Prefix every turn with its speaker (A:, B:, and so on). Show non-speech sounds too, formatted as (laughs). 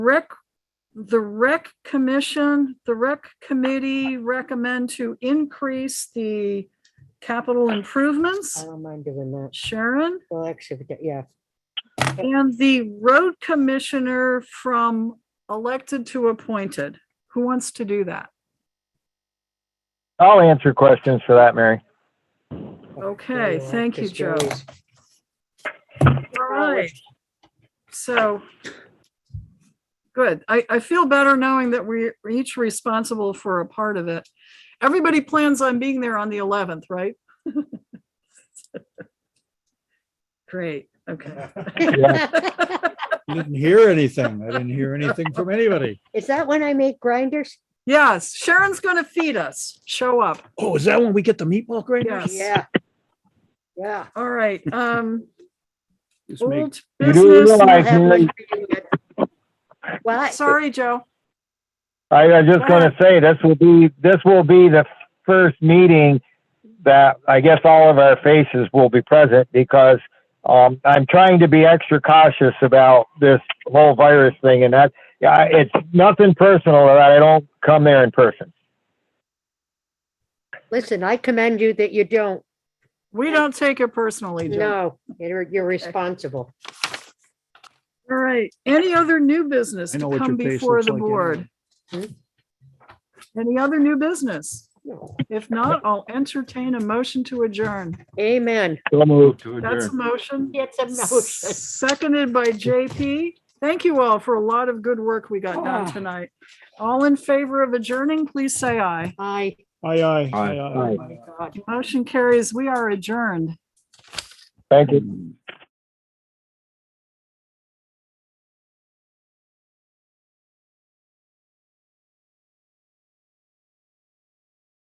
A: Rec, the rec commission, the rec committee recommend to increase the capital
B: I
A: improvements.
B: don't mind doing that.
A: Sharon?
B: Well, actually, yeah,
A: And the road commissioner from elected to appointed. Who wants to do that?
C: I'll answer questions for that,
D: (laughs)
C: Mary.
A: Okay,
B: Yeah,
A: thank you,
B: because
A: Joe.
B: you're always-
A: All right. So. Good. I, I feel better knowing that we're each responsible for a part of it. Everybody plans on being there on the eleventh, right? (laughs) Great, okay.
D: Didn't hear anything. I didn't hear anything from anybody.
B: (laughs) Is that when I make grinders?
A: Yes, Sharon's gonna feed us. Show up.
D: Oh, is that when we get the meatball grater?
A: Yes.
B: Yeah. Yeah.
A: All right, um,
D: Just make-
A: old
C: You do
A: business.
B: I'll
C: realize,
B: have one
C: Mary,
B: for you yet. What?
A: Sorry, Joe.
C: I was just gonna say, this will be, this will be the first meeting that I guess all of our faces will be present because, um, I'm trying to be extra cautious about this whole virus thing and that, yeah, it's nothing personal that I don't come there in person.
B: Listen, I commend you that you don't.
A: We don't take it personally, Joe.
B: No, you're, you're responsible.
A: All right, any other new business
D: I know
A: to
D: what
A: come
D: your face
A: before
D: looks
A: the
D: like
A: board?
B: anyway.
A: Any other new business?
B: No.
A: If not, I'll entertain a motion to adjourn.
B: Amen.
C: So moved.
A: That's a motion.
B: It's a motion.
A: Seconded by JP. Thank you all for a lot of good work we got done
B: Ah.
A: tonight. All in favor of adjourning, please say aye.
B: Aye.
D: Aye, aye, aye,
C: Aye.
D: aye.
B: God.
A: Motion carries. We are adjourned.
C: Thank you.
D: aye.